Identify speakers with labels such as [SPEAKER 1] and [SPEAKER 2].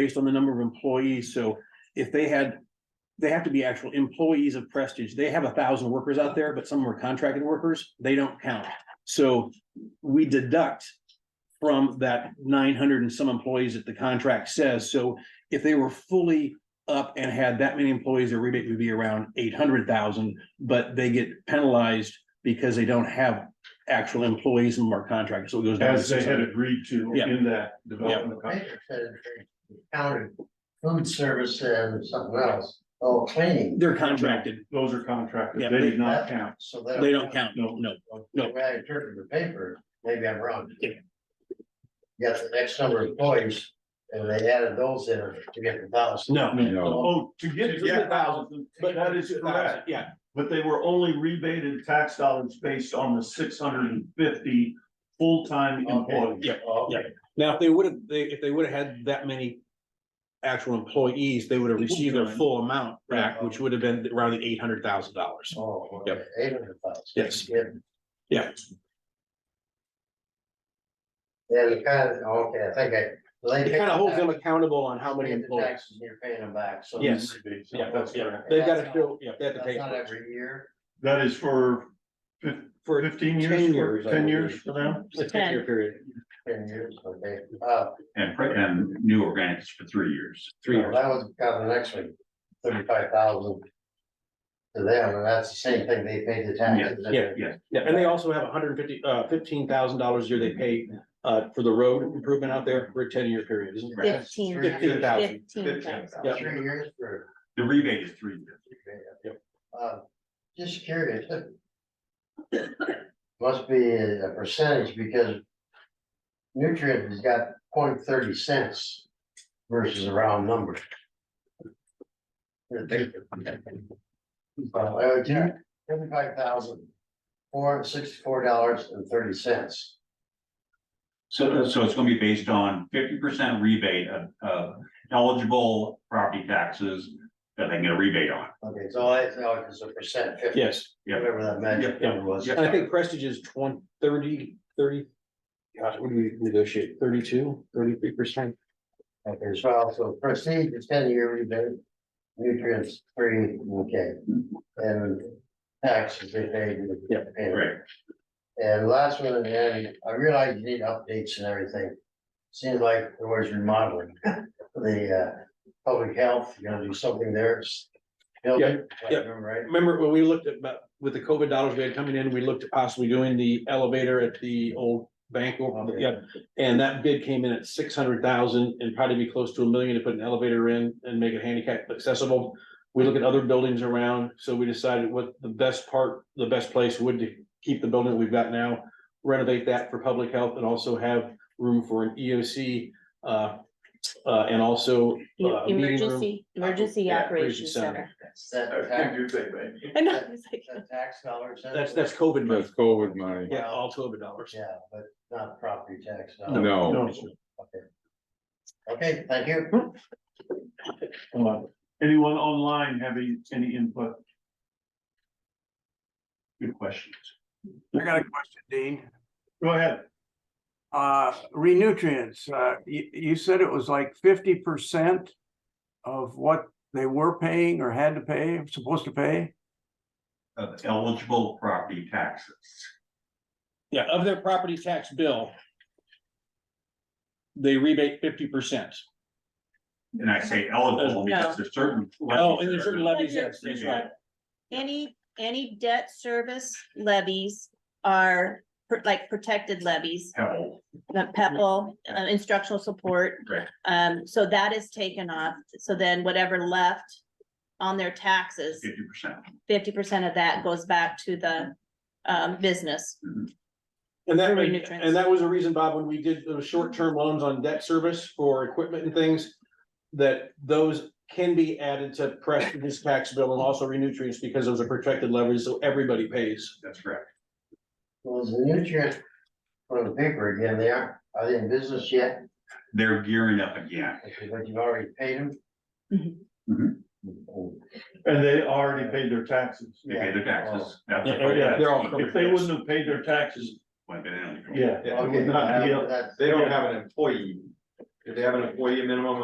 [SPEAKER 1] based on the number of employees, so if they had. They have to be actual employees of Prestige, they have a thousand workers out there, but some are contracted workers, they don't count, so we deduct. From that nine hundred and some employees that the contract says, so if they were fully up and had that many employees, their rebate would be around eight hundred thousand. But they get penalized because they don't have actual employees and are contracted, so it goes down. to
[SPEAKER 2] As they had
[SPEAKER 1] 600.
[SPEAKER 2] agreed to
[SPEAKER 1] Yeah.
[SPEAKER 2] in that development.
[SPEAKER 3] I just said it Counted food service and something else, oh, cleaning.
[SPEAKER 1] They're contracted,
[SPEAKER 2] Those are contracted.
[SPEAKER 1] Yeah,
[SPEAKER 2] They
[SPEAKER 1] they-
[SPEAKER 2] did not count.
[SPEAKER 3] So
[SPEAKER 1] they don't count, no, no. no.
[SPEAKER 3] The way I interpret the paper, maybe I'm wrong.
[SPEAKER 1] Yeah.
[SPEAKER 3] You got the next number of employees, and they added those in to get the thousand.
[SPEAKER 1] No.
[SPEAKER 2] Oh, to get it, yeah. But that is correct.
[SPEAKER 1] Yeah,
[SPEAKER 2] But they were only rebated tax dollars based on the six hundred and fifty full-time
[SPEAKER 3] Okay.
[SPEAKER 2] employees.
[SPEAKER 1] Yeah, now, if they would have, they, if they would have had that many. Actual employees, they would have received their full amount back, which would have been around the eight hundred thousand dollars.
[SPEAKER 3] Oh,
[SPEAKER 1] Yep.
[SPEAKER 3] eight hundred thousand.
[SPEAKER 1] Yes.
[SPEAKER 3] Yeah.
[SPEAKER 1] Yeah.
[SPEAKER 3] Yeah, you kind of, okay, I think I. they
[SPEAKER 1] It
[SPEAKER 3] picked
[SPEAKER 1] kind of holds
[SPEAKER 3] that.
[SPEAKER 1] them accountable on how many
[SPEAKER 3] Pay the
[SPEAKER 1] employees.
[SPEAKER 3] taxes and You're paying them back, so.
[SPEAKER 1] Yes. Yeah,
[SPEAKER 2] That's
[SPEAKER 1] yeah,
[SPEAKER 2] correct.
[SPEAKER 1] they've got to show, yeah, they have to
[SPEAKER 3] That's
[SPEAKER 1] pay.
[SPEAKER 3] not
[SPEAKER 1] for it.
[SPEAKER 3] every year.
[SPEAKER 2] That is for
[SPEAKER 1] For
[SPEAKER 2] fifteen
[SPEAKER 1] 10
[SPEAKER 2] years,
[SPEAKER 1] years,
[SPEAKER 2] for-
[SPEAKER 1] I
[SPEAKER 2] ten
[SPEAKER 1] believe.
[SPEAKER 2] years for them?
[SPEAKER 1] It's a ten-year period,
[SPEAKER 3] Ten years, okay, uh,
[SPEAKER 4] and, and new organics for three years.
[SPEAKER 1] three
[SPEAKER 3] that
[SPEAKER 1] years.
[SPEAKER 3] was kind of the next one, thirty-five thousand. To them, and that's the same thing, they paid the taxes.
[SPEAKER 1] Yeah,
[SPEAKER 4] yeah.
[SPEAKER 1] Yeah, and they also have hundred and fifty, uh, fifteen thousand dollars a year they pay, uh, for the road improvement out there for a ten-year period, isn't it?
[SPEAKER 5] Fifteen.
[SPEAKER 1] Fifteen thousand.
[SPEAKER 5] Fifteen thousand.
[SPEAKER 1] Yeah.
[SPEAKER 3] Three years for.
[SPEAKER 4] The rebate is three years.
[SPEAKER 3] Uh, just curious. Must be a percentage because. Nutrient has got point thirty cents versus a round number. Well, seventy-five thousand, four sixty-four dollars and thirty cents.
[SPEAKER 4] So, uh, so it's gonna be based on fifty percent rebate of, of eligible property taxes that they can get a rebate on.
[SPEAKER 3] Okay, so I, no, it's a percent, fifty,
[SPEAKER 1] Yes.
[SPEAKER 3] whatever that magic
[SPEAKER 1] Yeah, yeah,
[SPEAKER 3] number was.
[SPEAKER 4] yeah.
[SPEAKER 1] And I think Prestige is twenty, thirty, thirty. Gosh, what do we negotiate? Thirty-two, thirty-three percent?
[SPEAKER 3] Okay, so also proceed to ten year rebate, nutrients free, okay, and taxes they paid.
[SPEAKER 1] Yeah,
[SPEAKER 4] right.
[SPEAKER 3] And last one, and then I realize you need updates and everything. Seems like there was remodeling, the uh, public health, you're gonna do something there. it's building, if I
[SPEAKER 1] yeah.
[SPEAKER 3] remember Right,
[SPEAKER 1] Remember when we looked at, about with the COVID dollars we had coming in, we looked at possibly doing the elevator at the old bank.
[SPEAKER 6] Oh,
[SPEAKER 1] over-
[SPEAKER 3] Okay.
[SPEAKER 1] Yeah, and that bid came in at six hundred thousand and probably be close to a million to put an elevator in and make it handicap accessible. We look at other buildings around, so we decided what the best part, the best place would to keep the building that we've got now. Renovate that for public health and also have room for an EOC, uh, uh, and also. uh, meeting room.
[SPEAKER 5] E, Emergency, emergency
[SPEAKER 1] Yeah,
[SPEAKER 5] operations center.
[SPEAKER 3] that's that tax,
[SPEAKER 5] I know, it's like,
[SPEAKER 3] that tax dollars.
[SPEAKER 1] That's, that's COVID money.
[SPEAKER 6] That's COVID money.
[SPEAKER 1] Yeah, all COVID dollars.
[SPEAKER 3] Yeah, but not property tax. dollars.
[SPEAKER 6] No,
[SPEAKER 2] No.
[SPEAKER 3] Okay, thank you.
[SPEAKER 1] Hmm.
[SPEAKER 2] Uh, Anyone online having any input? Good questions.
[SPEAKER 7] I got a question, Dean.
[SPEAKER 2] Go ahead.
[SPEAKER 7] Uh, renutrients, uh, you, you said it was like fifty percent of what they were paying or had to pay, supposed to pay?
[SPEAKER 4] Of eligible property taxes.
[SPEAKER 1] Yeah, of their property tax bill. They rebate fifty percent.
[SPEAKER 4] And I say eligible because there's certain.
[SPEAKER 1] Oh, and there's certain levies, yes, that's right.
[SPEAKER 5] uh, Any, any debt service levies are pr- like protected levies,
[SPEAKER 4] Held.
[SPEAKER 5] the PEPL, uh, instructional support.
[SPEAKER 4] Right.
[SPEAKER 5] Um, so that is taken off. So then whatever left on their taxes,
[SPEAKER 4] fifty percent.
[SPEAKER 5] fifty percent of that goes back to the um, business.
[SPEAKER 1] And that,
[SPEAKER 5] Very
[SPEAKER 1] made-
[SPEAKER 5] nutritious.
[SPEAKER 1] and that was a reason, Bob, when we did those short-term loans on debt service for equipment and things. That those can be added to Prestige's tax bill and also renutrients because those are protected levies, so everybody pays.
[SPEAKER 4] That's correct.
[SPEAKER 3] Well, is the nutrient from the paper again They are Are they in business yet?
[SPEAKER 4] They're gearing up again.
[SPEAKER 3] But you've already paid them?
[SPEAKER 2] And they already paid their taxes. Oh.
[SPEAKER 4] They pay their taxes. That's-
[SPEAKER 1] Yeah, oh, yeah, they're all covered.
[SPEAKER 2] If they wouldn't have paid their taxes,
[SPEAKER 4] Would've been eligible.
[SPEAKER 2] yeah. it would
[SPEAKER 3] Okay, uh,
[SPEAKER 2] not be up-
[SPEAKER 3] that's-
[SPEAKER 8] They don't have an employee. If they have an employee minimum